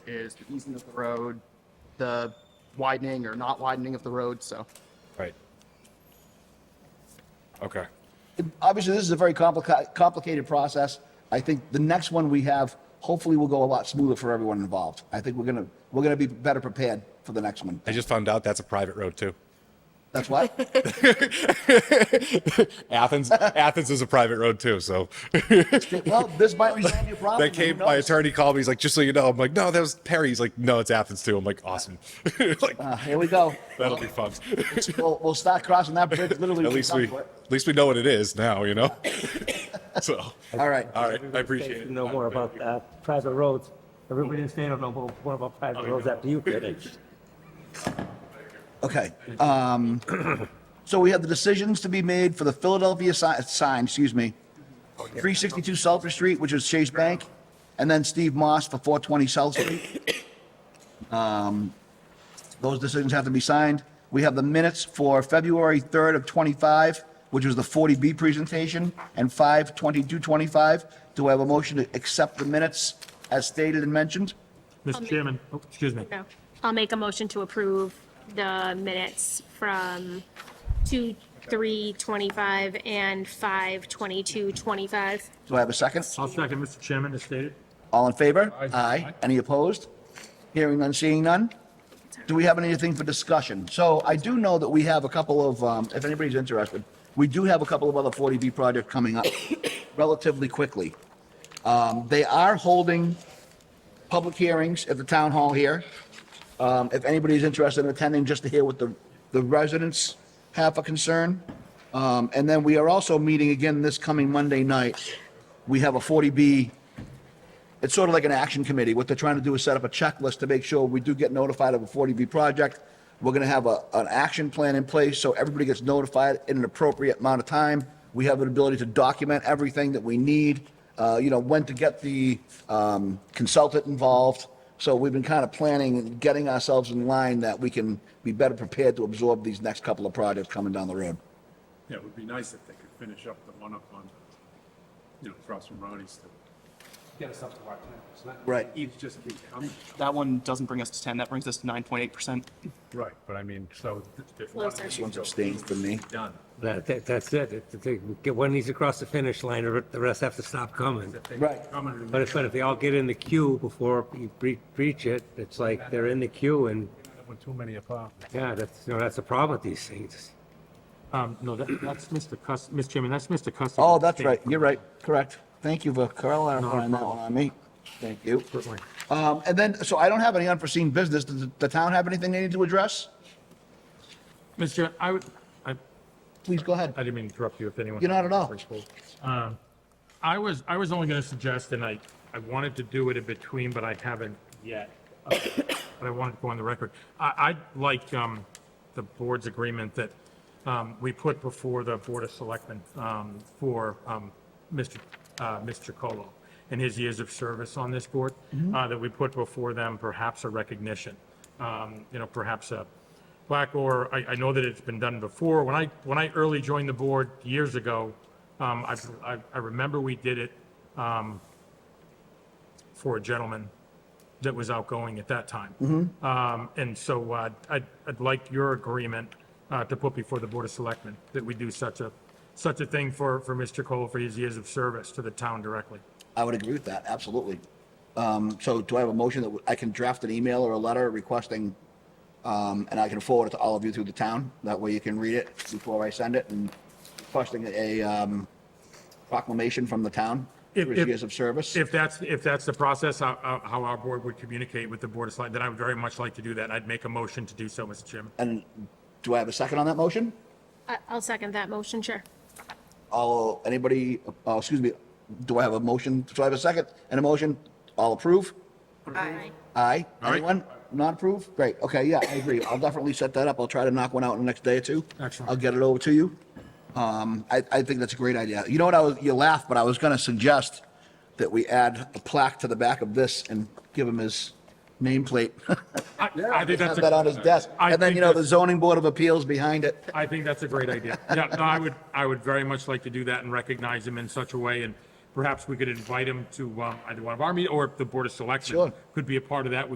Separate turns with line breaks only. is the easement of the road, the widening or not widening of the road, so.
Right. Okay.
Obviously, this is a very complicated, complicated process. I think the next one we have, hopefully will go a lot smoother for everyone involved. I think we're gonna, we're gonna be better prepared for the next one.
I just found out that's a private road too.
That's what?
Athens, Athens is a private road too. So
Well, this might resolve your problem.
they came,
who
my
knows?
attorney called me. He's like, just so you know, I'm like, no, that was Perry. He's like, no, it's Athens too. I'm like, awesome. like,
Uh,
Ah.
Here we go.
that'll be fun.
We'll, we'll start crossing that bridge literally.
at
when
least
come
we,
to it.
at least we know what it is now, you know? so,
All right.
all right. I appreciate it.
know more about uh, private roads. Everybody in the state will know more- more about private roads after you finish.
Okay. um, So we have the decisions to be made for the Philadelphia si- sign, excuse me, 362 Sulphur Street, which is Chase Bank, and then Steve Moss for 420 South Street. Um, Those decisions have to be signed. We have the minutes for February 3rd of '25, which was the 40B presentation, and 5/22/25. Do I have a motion to accept the minutes as stated and mentioned?
I'll
Mr.
make-
Chairman, oh, excuse me.
No. I'll make a motion to approve the minutes from two, three, twenty-five and five, twenty-two, twenty-five.
Do I have a second?
I'll second, Mr. Chairman, as stated.
All in favor? Aye. Any opposed? Hearing none, seeing none? Do we have anything for discussion? So I do know that we have a couple of, um, if anybody's interested, we do have a couple of other 40B projects coming up relatively quickly. Um, They are holding public hearings at the town hall here. Um, If anybody's interested in attending, just to hear what the the residents have a concern. Um, And then we are also meeting again this coming Monday night. We have a 40B it's sort of like an action committee. What they're trying to do is set up a checklist to make sure we do get notified of a 40B project. We're going to have a, an action plan in place so everybody gets notified in an appropriate amount of time. We have an ability to document everything that we need, uh, you know, when to get the um, consultant involved. So we've been kind of planning and getting ourselves in line that we can be better prepared to absorb these next couple of projects coming down the road.
Yeah, it would be nice if they could finish up the one up on, you know, across from Ronnie's. to Get us up to our ten percent.
Right.
Each just keep coming.
That one doesn't bring us to 10, that brings us to 9.8%.
Right, but I mean, so. if one of
Closer.
these
This one's
goes
abstained from me.
Done.
That, that- that's it. If they get one of these across the finish line, the the rest have to stop coming.
If they
Right.
come and-
But if, but if they all get in the queue before you bre- breach it, it's like they're in the queue and,
With too many apartments.
yeah, that's, you know, that's a problem with these things.
Um, no, that, that's Mr. Cus, Mr. Chairman, that's Mr. Cus.
Oh, that's right. You're right. Correct. Thank you for clarifying that one on me. Thank you. Um, and then, so I don't have any unforeseen business. Does the town have anything they need to address?
Mr. Chairman, I would, I,
Please go ahead.
I didn't mean to interrupt you if anyone.
You're not at all.
Um, I was, I was only gonna suggest, and I, I wanted to do it in between, but I haven't yet. uh, But I wanted to go on the record. I, I'd like, um, the board's agreement that, um, we put before the Board of Selectmen, um, for, um, Mr., uh, Mr. Chacolo and his years of service on this board, uh, that we put before them perhaps a recognition, um, you know, perhaps a, Black or, I, I know that it's been done before. When I, when I early joined the board years ago, um, I, I, I remember we did it, um, for a gentleman that was outgoing at that time. Um, and so, uh, I'd, I'd like your agreement, uh, to put before the Board of Selectmen that we do such a, such a thing for, for Mr. Cole for his years of service to the town directly.
I would agree with that. Absolutely. Um, so do I have a motion that I can draft an email or a letter requesting, um, and I can forward it to all of you through the town? That way you can read it before I send it and requesting a, um, proclamation from the town
If-
for his
if-
years of service?
If that's, if that's the process, how, how- how our board would communicate with the Board of Selectmen, then I would very much like to do that. I'd make a motion to do so, Mr. Chairman.
And do I have a second on that motion?
I, I'll second that motion, Chair.
All, anybody, uh, excuse me, do I have a motion? Do I have a second and a motion? All approve?
Aye.
Aye.
right.
Anyone not approve? Great, okay, yeah, I agree. I'll definitely set that up. I'll try to knock one out in the next day or two.
Excellent.
I'll get it over to you. Um, I, I think that's a great idea. You know what, I was, you laughed, but I was gonna suggest that we add a plaque to the back of this and give him his nameplate.
I, I
Have
think that's,
that on
a-
his desk.
I
And then,
think
you know, the
that's-
zoning board of appeals behind it.
I think that's a great idea. Yeah, no, I would, I would very much like to do that and recognize him in such a way, and perhaps we could invite him to, um, either one of our meet, or if the Board of Selectmen
Sure.
could be a part of that,